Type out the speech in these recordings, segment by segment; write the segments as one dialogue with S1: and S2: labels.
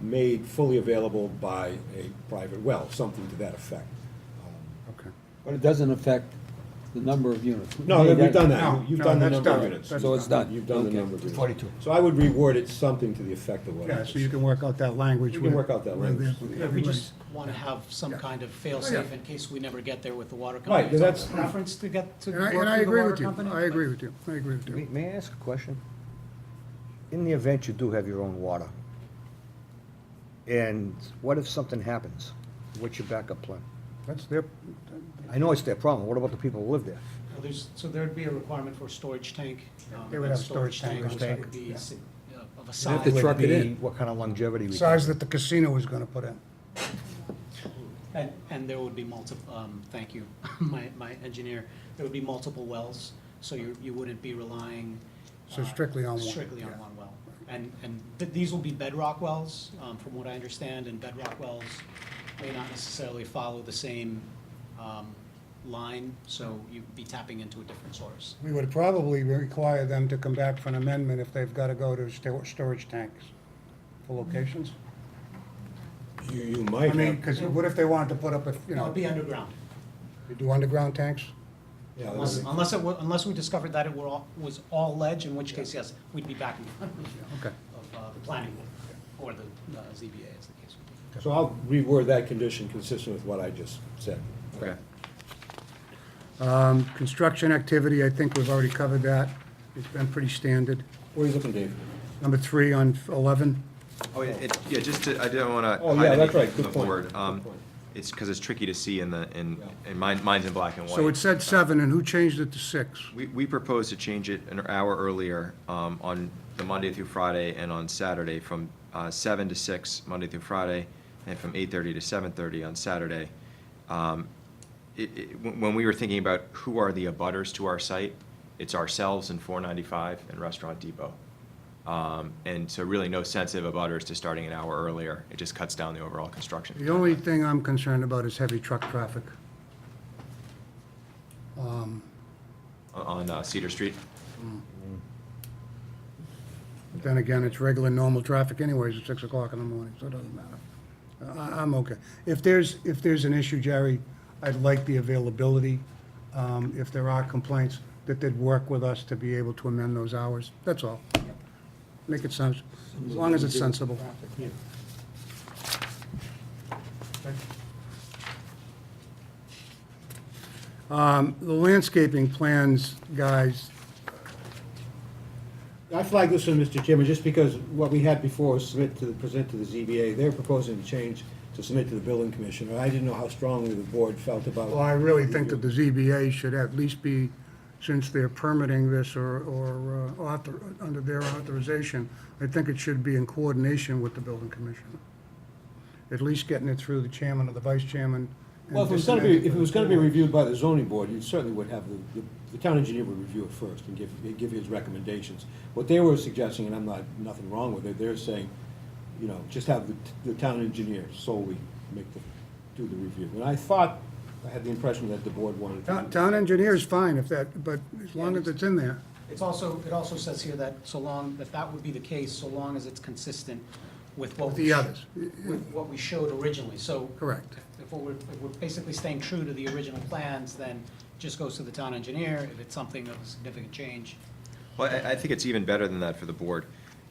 S1: made fully available by a private well, something to that effect.
S2: Okay.
S3: But it doesn't affect the number of units.
S1: No,
S3: Hey,
S1: we've done
S2: No,
S1: that. You've
S2: no,
S1: done the
S2: that's
S1: number of
S2: done.
S1: units.
S2: That's
S3: So it's done.
S1: You've done the
S3: Okay.
S1: number of units.
S3: 42.
S1: So I would reward it something to the effect of what. I
S2: Yeah, so you
S1: just-
S2: can work out that language.
S1: You can
S2: with-
S1: work out that
S2: with the
S1: language.
S2: applicant.
S4: Yeah, we
S2: Everybody-
S4: just want to have some kind of
S2: Oh,
S4: fail-safe in case we never get there with the water company.
S1: Right, but that's-
S4: Preference to get, to
S2: And I,
S4: work with
S2: and I
S4: the
S2: agree
S4: water
S2: with you,
S4: company.
S2: I agree with you, I agree with
S5: May,
S2: you.
S5: may I ask a question? In the event you do have your own water, and what if something happens? What's your backup plan?
S2: That's their,
S5: I know it's their problem, what about the people who live there?
S4: Well, there's- So there'd be a requirement for a storage tank. um,
S2: They would
S4: that
S2: have a storage tank or
S4: which
S2: tank,
S4: would be
S2: yeah.
S4: si- uh, Of a
S1: have
S4: size.
S1: to
S5: Would
S1: truck it
S5: be
S1: in.
S5: What kind of longevity we
S2: size
S5: can?
S2: that the casino is gonna put in.
S4: And, and there would be multiple, um, thank you, my, my engineer, there would be multiple wells, so you, you wouldn't be relying.
S2: So
S4: uh,
S2: strictly on one,
S4: Strictly on
S2: yeah.
S4: one well. And, and th- these will be bedrock wells, um, from what I understand, and bedrock wells may not necessarily follow the same, um, line, so you'd be tapping into a different source.
S2: We would probably require them to come back for an amendment if they've gotta go to stor- storage tanks for locations.
S1: You, you might
S2: I
S1: have.
S2: mean, cause what if they wanted to put up, a you
S4: It
S2: know,
S4: would be underground,
S2: you do underground tanks?
S1: Yeah,
S4: unless,
S1: that'd be-
S4: unless it, wa- unless we discovered that it were all, was all ledge, in which case, yes, we'd be back in front of,
S2: Okay.
S4: uh, the planning board, or the, uh, ZBA, as the case would be.
S1: So I'll reword that condition consistent with what I just said.
S5: Okay.
S2: Um, construction activity, I think we've already covered that, it's been pretty standard.
S1: What are you looking, Dave?
S2: Number three on eleven,
S6: Oh, yeah, it, yeah, just to, I didn't wanna
S1: Oh,
S6: hide
S1: yeah, that's
S6: anything
S1: right,
S6: from the
S1: good point,
S6: board.
S1: good
S6: Um,
S1: point.
S6: It's, because it's tricky to see in the, in, and mine, mine's in black and white.
S2: so it said seven, and who changed it to six?
S6: We, we propose to change it an hour earlier, um, on the Monday through Friday and on Saturday, from, uh, seven to six, Monday through Friday, and from eight-thirty to seven-thirty on Saturday. Um, It, it, when when we were thinking about who are the abutters to our site, it's ourselves and four ninety-five and Restaurant Depot. Um, and so really no sensitive abutters to starting an hour earlier, it just cuts down the overall construction.
S2: The only thing I'm concerned about is heavy truck traffic. Um,
S6: On, on uh, Cedar Street,
S2: but Then again, it's regular, normal traffic anyways at six o'clock in the morning, so it doesn't matter. I, I'm okay. If there's, if there's an issue, Jerry, I'd like the availability, um, if there are complaints, that they'd work with us to be able to amend those hours, that's all. Make it sense, as long as it's sensible. Um, the landscaping plans, guys,
S1: I flagged this one, Mr. Chairman, just because what we had before was submit to, the present to the ZBA. They're proposing to change to submit to the building commissioner. I didn't know how strongly the board felt about.
S2: Well, I really think that the ZBA should at least be, since they're permitting this or, or uh, author, under their authorization, I think it should be in coordination with the building commissioner. At least getting it through the chairman or the vice chairman. and
S1: Well, if it was gonna be, if it was gonna be
S2: disseminating
S1: reviewed by the zoning board, you certainly would have, the- the, the town engineer would review it first and give, give his recommendations. What they were suggesting, and I'm not, nothing wrong with it, they're saying, you know, just have the, the town engineer solely make the, do the review. And I thought, I had the impression that the board wanted.
S2: it.
S1: to
S2: Town-
S1: do-
S2: Town engineer is fine if that, but as long as it's in there.
S4: It's also, it also says here that so long, that that would be the case, so long as it's consistent with what.
S2: The
S4: we-
S2: others.
S4: With what we showed originally, so.
S2: Correct.
S4: If we're, if we're basically staying true to the original plans, then just goes to the town engineer, if it's something of a significant change.
S6: Well, I, I think it's even better than that for the board.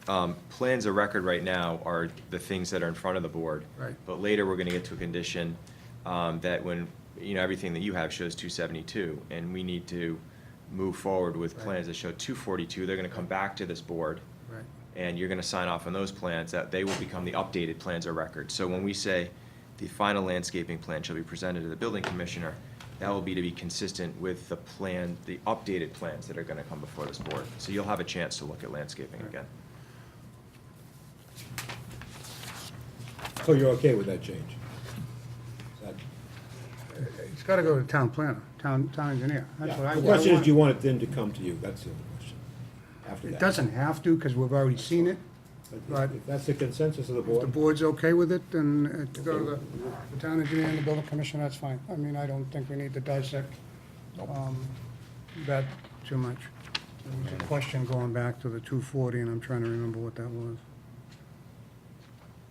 S6: Um, Plans of record right now are the things that are in front of the board.
S2: Right.
S6: But later, we're gonna get to a condition um, that when, you know, everything that you have shows two seventy-two, and we need to move forward with plans that show two forty-two, they're gonna come back to this board
S2: Right.
S6: and you're gonna sign off on those plans, that they will become the updated plans or record. So when we say the final landscaping plan shall be presented to the building commissioner, that will be to be consistent with the plan, the updated plans that are gonna come before this board. So you'll have a chance to look at landscaping again.
S1: So you're okay with that change? That-
S2: It's gotta go to town planner, town, town engineer. That's what I.
S1: Yeah. The question is,
S2: I
S1: do you want it then to come to you? That's the other question, after that.
S2: It doesn't have to, because we've already seen it,
S1: If
S2: but
S1: if that's the consensus of the
S2: If the
S1: board,
S2: board's okay with it, then uh, to go to the- the town engineer and the building commissioner, that's fine. I mean, I don't think we need to dissect um, that too much. There was a question going back to the 240, and I'm trying to remember what that was.